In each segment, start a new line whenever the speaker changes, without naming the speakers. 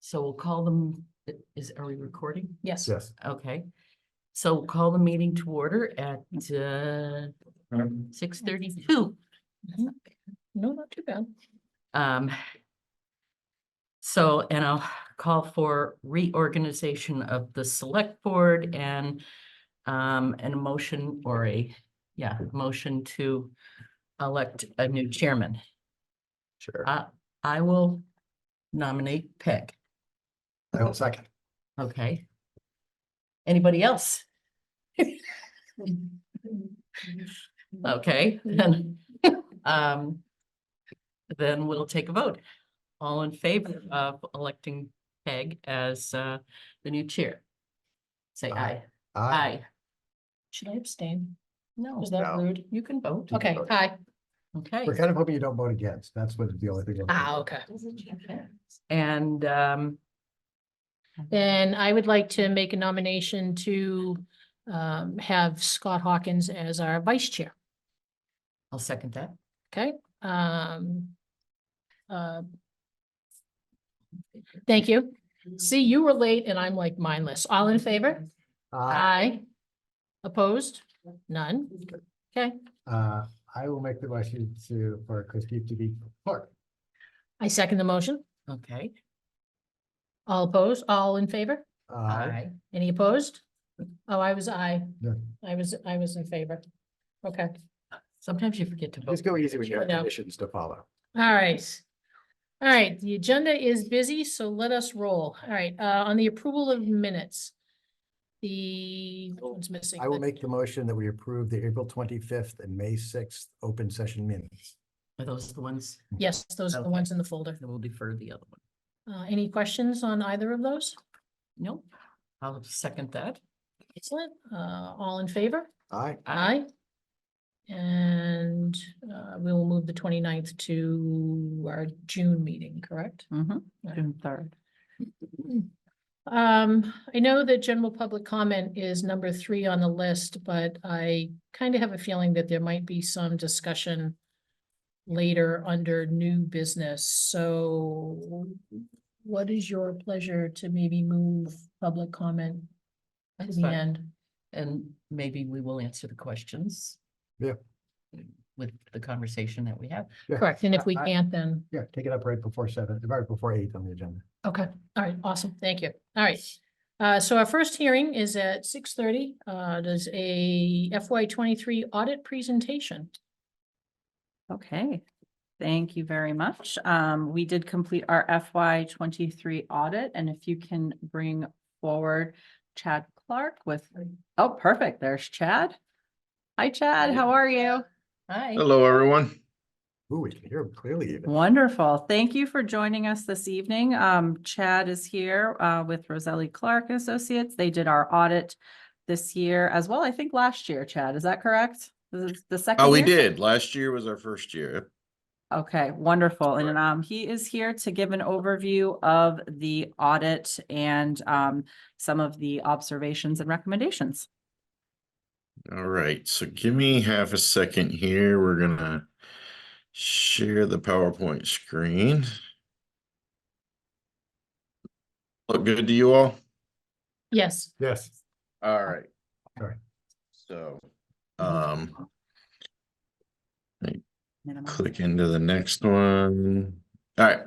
So we'll call them, is, are we recording?
Yes.
Yes.
Okay. So we'll call the meeting to order at, uh, six thirty-two.
Mm-hmm. No, not too bad.
Um. So, and I'll call for reorganization of the select board and um, an motion or a, yeah, motion to elect a new chairman.
Sure.
Ah.
I, I will nominate Peg,
I will second.
okay? Anybody else? Okay, then, um, then we'll take a vote. All in favor of electing Peg as, uh, the new chair? Say aye. Aye.
Should I abstain?
No,
Was that
No.
rude?
you can vote.
Okay,
vote.
aye.
Okay,
We're kind of hoping you don't vote against. That's what the only thing. we're-
Ah, okay.
and, um,
Then I would like to make a nomination to um, have Scott Hawkins as our vice chair,
I'll second that.
okay? Um, uh, Thank you. See, you were late and I'm like mindless. All in favor?
Uh,
Aye. Opposed? None? Okay,
uh, I will make the motion to, for Christine to be clerk.
I second the motion.
Okay.
All opposed? All in favor?
Uh,
Any opposed? Oh, I was I.
Yeah.
I was, I was in favor. Okay,
Sometimes you forget to vote.
Just go easy with your
No.
conditions to follow.
all right. All right, the agenda is busy, so let us roll. All right, uh, on the approval of minutes. The, one's missing.
I will make the motion that we approve the April twenty-fifth and May sixth open session minutes.
Are those the ones?
Yes, those are the
Okay.
ones in the folder.
Then we'll defer the other one.
Uh, any questions on either of those?
Nope. I'll second that.
Excellent. Uh, all in favor?
Aye.
Aye. And, uh, we will move the 29th to our June meeting, correct?
Mm-hmm.
Aye.
June third.
Um, I know that general public comment is number three on the list, but I kind of have a feeling that there might be some discussion later under new business, so what is your pleasure to maybe move public comment to
That's
the
fine.
end?
And maybe we will answer the questions.
Yeah.
With the conversation that we have.
Yeah.
Correct, and if we
I- I-
can't, then,
Yeah, take it up right before seven, right before eight on the agenda.
okay, all right, awesome, thank you, all right. Uh, so our first hearing is at six thirty, uh, does a FY twenty-three audit presentation.
Okay, thank you very much. Um, we did complete our FY twenty-three audit, and if you can bring forward Chad Clark with, oh, perfect, there's Chad. Hi, Chad, how are you?
Hi.
Hello, everyone.
Ooh, we can hear them clearly even.
Wonderful. Thank you for joining us this evening. Um, Chad is here uh, with Roselli Clark and Associates. They did our audit this year as well, I think last year, Chad, is that correct? This is the second
Oh, we
year?
did. Last year was our first year.
Okay, wonderful. And
Correct.
um, he is here to give an overview of the audit and um, some of the observations and recommendations.
All right, so give me half a second here. We're gonna share the PowerPoint screen. Look good to you all?
Yes.
Yes.
All right.
All right.
So, um,
Minimum.
click into the next one. All right.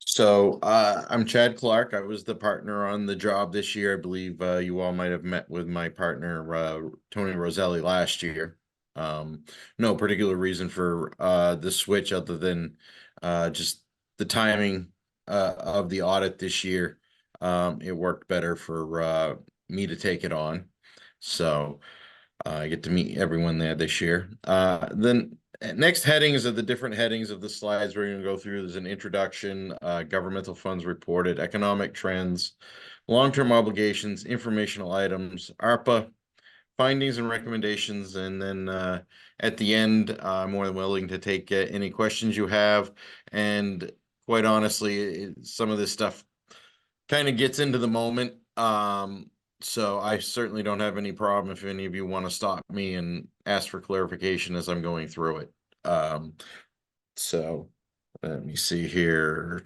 So, uh, I'm Chad Clark. I was the partner on the job this year. I believe, uh, you all might have met with my partner, uh, Tony Roselli last year. Um, no particular reason for, uh, the switch other than, uh, just the timing, uh, of the audit this year. Um, it worked better for, uh, me to take it on. So, uh, I get to meet everyone there this year. Uh, then uh, Next headings are the different headings of the slides we're gonna go through. There's an introduction, uh, governmental funds reported, economic trends, long-term obligations, informational items, ARPA, findings and recommendations, and then, uh, at the end, uh, more than willing to take uh, any questions you have. And quite honestly, it, some of this stuff kind of gets into the moment. Um, so I certainly don't have any problem if any of you want to stop me and ask for clarification as I'm going through it. Um, so let me see here.